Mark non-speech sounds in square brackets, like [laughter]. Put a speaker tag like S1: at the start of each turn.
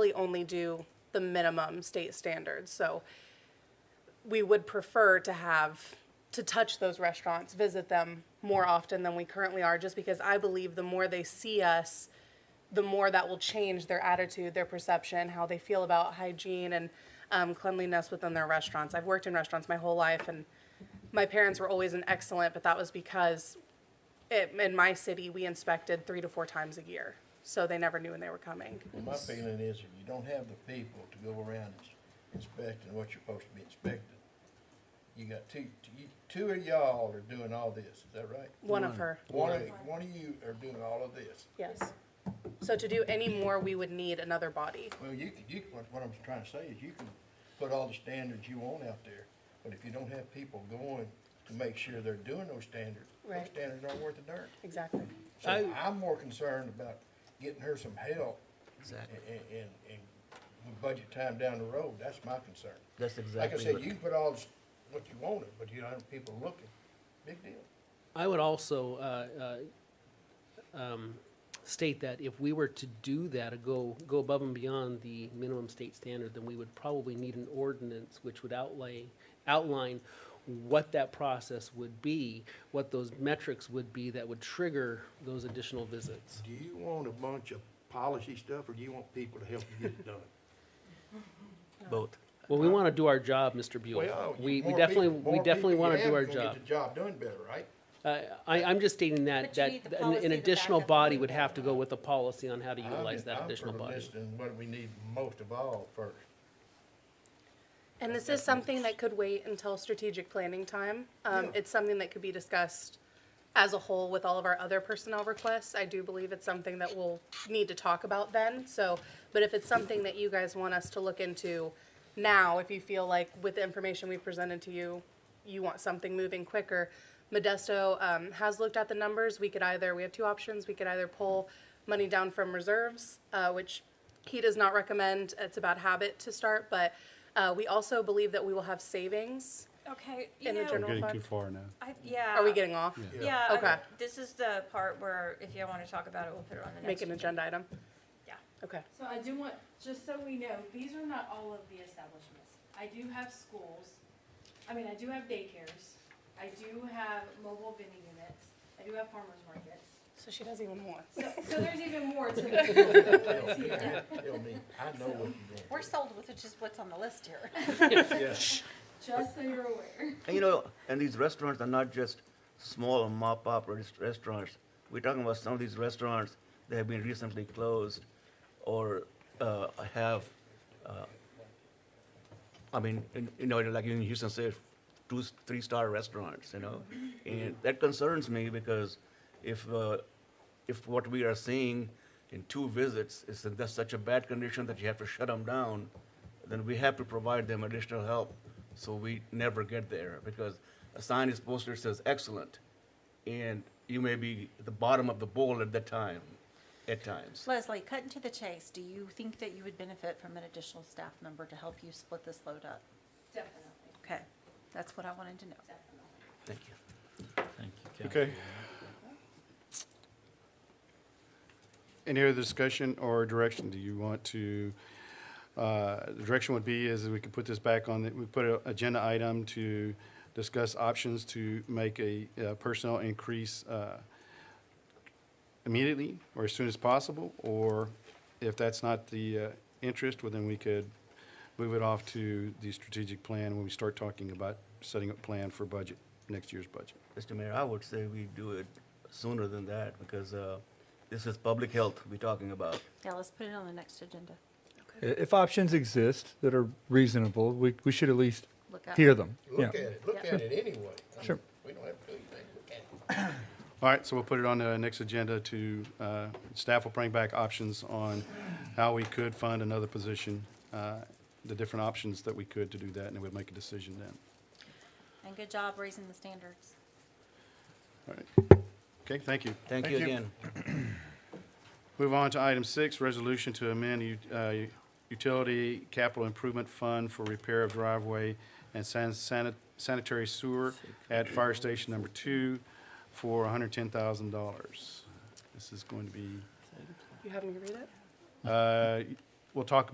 S1: really only do the minimum state standards. So we would prefer to have to touch those restaurants, visit them more often than we currently are, just because I believe the more they see us, the more that will change their attitude, their perception, how they feel about hygiene and um, cleanliness within their restaurants. I've worked in restaurants my whole life, and my parents were always an excellent, but that was because it, in my city we inspected three to four times a year, so they never knew when they were coming.
S2: My feeling is if you don't have the people to go around ins- inspecting what you're supposed to be inspecting, you got two, you- two of y'all are doing all this, is that right?
S1: One of her,
S2: One of, one of you are doing all of this.
S1: yes. So to do any more, we would need another body.
S2: Well, you can, you, can- what, what I'm trying to say is you can put all the standards you want out there, but if you don't have people going to make sure they're doing those standards, those
S1: Right.
S2: standards aren't worth a darn.
S1: Exactly.
S2: So
S3: I-
S2: I'm more concerned about getting her some help
S3: Exactly.
S2: and, and, and with budget time down the road, that's my concern.
S3: That's
S2: Like I
S3: exactly
S2: said,
S3: what-
S2: you can put all this- what you wanted, but you don't have people looking, big deal.
S3: I would also uh, uh, um, state that if we were to do that, or go, go above and beyond the minimum state standard, then we would probably need an ordinance which would outlay, outline what that process would be, what those metrics would be that would trigger those additional visits.
S2: Do you want a bunch of policy stuff, or do you want people to help you get it
S3: [laughs]
S2: done?
S4: Both.
S3: Well, we want to do our job, Mr. Buell.
S2: Uh, Well, you-
S3: We, we
S2: more
S3: definitely,
S2: people- more
S3: we definitely
S2: people you
S3: want to
S2: have,
S3: do our
S2: you're gonna
S3: job.
S2: Get the job done better, right?
S3: Uh, I, I'm just stating that,
S5: But you
S3: that
S5: need the
S3: an-
S5: policy
S3: an
S5: to back
S3: additional
S5: up the
S3: body
S5: legal.
S3: would have to go with a policy on how to
S2: I'm
S3: utilize
S2: just-
S3: that
S2: I'm
S3: additional
S2: for
S3: body.
S2: listing what we need most of all first.
S1: And this is something that could wait until strategic planning time. Um,
S2: Yeah.
S1: It's something that could be discussed as a whole with all of our other personnel requests. I do believe it's something that we'll need to talk about then, so, but if it's something that you guys want us to look into now, if you feel like with the information we've presented to you, you want something moving quicker, Modesto um, has looked at the numbers. We could either, we have two options. We could either pull money down from reserves, uh, which he does not recommend. It's a bad habit to start, but uh, we also believe that we will have savings.
S5: Okay, you
S1: In the
S5: know,
S1: general-
S6: Getting too
S1: fund.
S6: far now.
S5: I, yeah.
S1: Are we getting off?
S5: Uh, Yeah,
S1: Yeah.
S5: okay,
S1: Okay.
S5: this is the part where if you want to talk about it, we'll put it on the
S1: Make
S5: next.
S1: an agenda item?
S5: Yeah.
S1: Okay.
S7: So I do want, just so we know, these are not all of the establishments. I do have schools, I mean, I do have daycares, I do have mobile vending units, I do have farmers markets.
S1: So she doesn't even want.
S7: So, so there's even more to
S2: [laughs]
S7: this than what is here.
S2: Tell me, I know what you're doing.
S8: We're sold with just what's on the list here.
S7: just so you're aware.
S4: And you know, and these restaurants are not just small mop up restaurants. We're talking about some of these restaurants that have been recently closed or uh, have, uh, I mean, in, you know, like in Houston, say, two, three star restaurants, you know? And that concerns me because if, uh, if what we are seeing in two visits is in that's such a bad condition that you have to shut them down, then we have to provide them additional help so we never get there because a sign is posted that says excellent, and you may be at the bottom of the bowl at that time, at times.
S8: Leslie, cutting to the chase, do you think that you would benefit from an additional staff member to help you split this load up?
S7: Definitely,
S8: Okay, that's what I wanted to know.
S7: definitely.
S4: Thank you.
S9: Thank you, Kathy.
S6: Okay. Any other discussion or direction? Do you want to, uh, the direction would be is that we could put this back on, the- we put an agenda item to discuss options to make a uh, personnel increase uh, immediately or as soon as possible, or if that's not the uh, interest, well, then we could move it off to the strategic plan when we start talking about setting up plan for budget, next year's budget.
S4: Mr. Mayor, I would say we do it sooner than that because uh, this is public health we're talking about.
S8: Yeah, let's put it on the next agenda.
S9: I- If options exist that are reasonable, we, we should at least
S8: Look up.
S9: hear them. Yeah.
S2: Look at it, look
S8: Yeah.
S2: at it anyway. I mean,
S9: Sure.
S2: We don't have to do anything, look at it.
S6: All right, so we'll put it on the next agenda to, uh, staff will bring back options on how we could fund another position, uh, the different options that we could to do that, and then we'll make a decision then.
S8: And good job raising the standards.
S6: All right. Okay, thank you.
S4: Thank you again.
S6: Move on to item six, resolution to amend u- uh, utility capital improvement fund for repair of driveway and san- sanit- sanitary sewer at fire station number two for $110,000. This is going to be,
S1: You have me read it?
S6: uh, we'll talk